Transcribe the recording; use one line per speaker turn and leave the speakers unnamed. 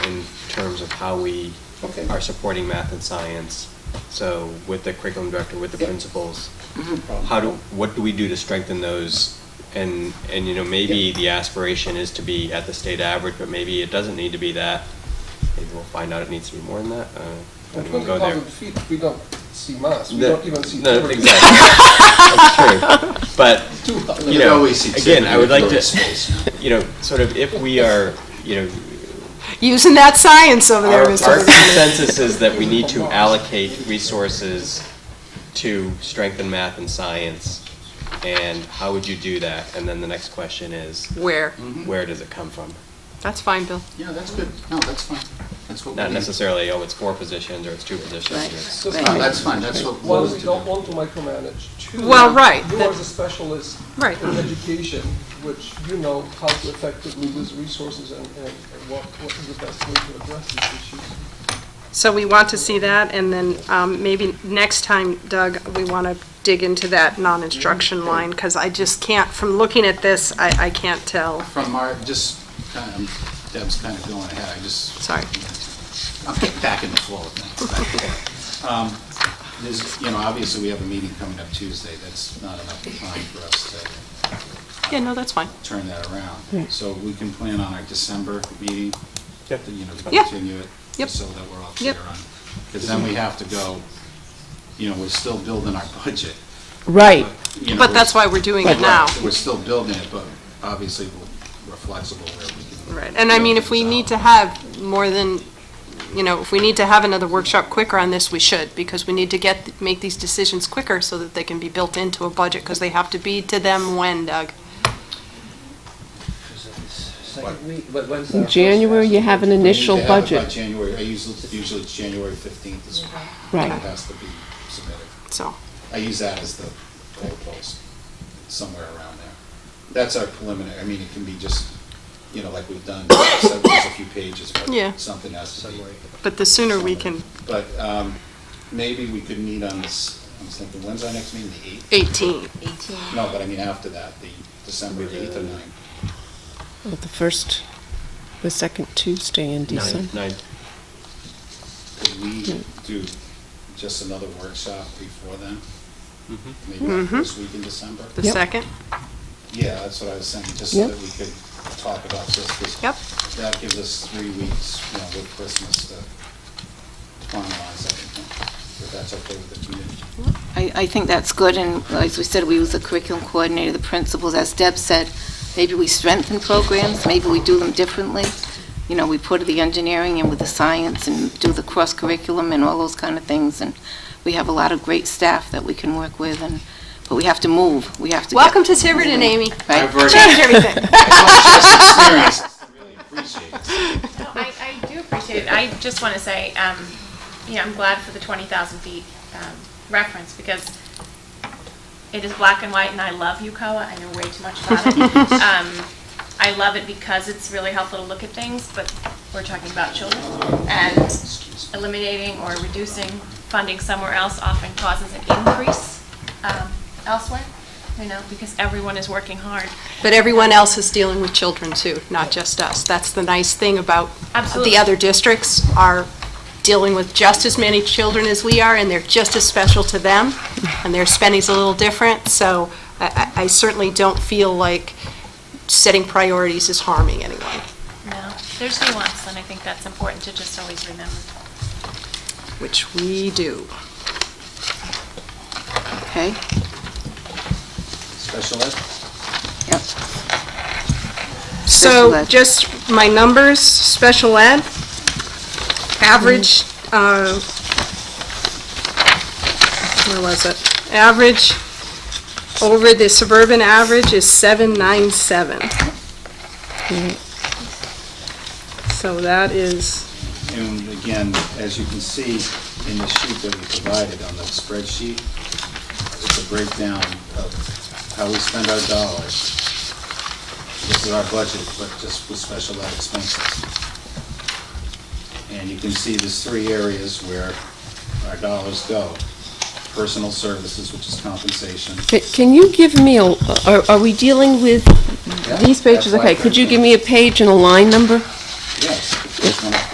in terms of how we
Okay.
are supporting math and science. So with the curriculum director, with the
Yep. Mm-hmm.
principals, how do, what do we do to strengthen those? And, and you know, maybe
Yep.
the aspiration is to be at the state average, but maybe it doesn't need to be that. Maybe we'll find out it needs to be more than that. Uh,
At
don't even go
20,000
there.
feet, we don't see Mars, we
No,
don't even see.
No,
Jupiter.
exactly. That's true. But
Two hundred.
you
There's
know,
always exhibit
again, I would like
in
to, you know, sort of if we are, you know,
Using that science over there,
our, our
Mr. Bernard.
consensus is that we need to allocate resources to strengthen math and science. And how would you do that? And then the next question is,
Where?
where does it come from?
That's fine, Bill.
Yeah, that's good. No, that's fine. That's what we
Not
need.
necessarily, oh, it's four positions or it's two positions.
Right.
it's-
Just
No, that's fine. That's what we
One,
need
we
to
don't
do.
want to micromanage. Two,
Well, right,
You
that-
as a specialist
Right.
in education, which you know how to effectively use resources and, and what, what is the best way to address these issues.
So we want to see that, and then um, maybe next time, Doug, we want to dig into that non-instruction line, because I just can't, from looking at this, I, I can't tell.
From our, just, kind of, Deb's kind of going ahead. I just
Sorry.
I'm getting back in the flow of things. Um, There's, you know, obviously, we have a meeting coming up Tuesday. That's not enough time for us to
Yeah, no, that's fine.
turn that around. So we can plan on our December meeting,
Yeah.
you know, to
Yeah.
continue it.
Yep.
So that we're all clear
Yep.
on. Because then we have to go, you know, we're still building our budget.
Right.
you know,
But that's why we're doing it now.
We're still building it, but obviously, we're- we're flexible where we can.
Right, and I mean, if we need to have more than, you know, if we need to have another workshop quicker on this, we should, because we need to get, make these decisions quicker so that they can be built into a budget, because they have to be to them when, Doug?
Second week, but when's our first
January, you
action?
have an
We need
initial
to have it by
budget,
January, I usually, usually it's January 15th is when it
right.
has to be submitted.
So,
I use that as the goalpost, somewhere around there. That's our preliminary, I mean, it can be just, you know, like we've done, so there's a few pages, but
Yeah.
something has to be.
but the sooner we can,
But um, maybe we could meet on this, I was thinking, when's our next meeting, the 8th?
18.
No, but I mean after that, the December 8th or 9th.
Well, The first, the second Tuesday
Nine,
in December.
nine,
Could we do just another workshop before then?
Mhm.
Maybe the
Mm-hmm.
first week in December?
The
Yep.
second?
Yeah, that's what I was saying, just so
Yep.
that we could talk about this, because
Yep.
that gives us three weeks, you know, with Christmas to finalize everything, if that's okay with the community.
I, I think that's good, and as we said, we use the curriculum coordinator, the principals, as Deb said, maybe we strengthen programs, maybe we do them differently. You know, we put the engineering in with the science and do the cross-curriculum and all those kind of things, and we have a lot of great staff that we can work with, and, but we have to move, we have to. get-
Welcome to Tiverton, Amy.
Right?
I've already-
Change everything.
I've just experienced, I really appreciate it.
No, I, I do appreciate it. I just want to say, um, you know, I'm glad for the 20,000 feet um, reference because it is black and white and I love Yukawa. I know way too much about it. Um, I love it because it's really helpful to look at things, but we're talking about children. And eliminating or reducing funding somewhere else often causes an increase um, elsewhere, you know, because everyone is working hard.
But everyone else is dealing with children too, not just us. That's the nice thing about
Absolutely.
the other districts are dealing with just as many children as we are, and they're just as special to them, and their spending's a little different, so I I- I certainly don't feel like setting priorities is harming anyone.
No, there's nuance and I think that's important to just always remember.
Which we do.
Okay,
Special ed?
yep. Special
So
ed.
just my numbers, special ed, average, uh, where was it? Average over the suburban average is 797. So that is,
And again, as you can see in the sheet that we provided on the spreadsheet, it's a breakdown of how we spend our dollars. This is our budget, but just with special ed expenses. And you can see there's three areas where our dollars go. Personal services, which is compensation.
Ca- Can you give me, a? are are we dealing with these pages?
that's why I
Okay, could you
printed
give me a page and a line number?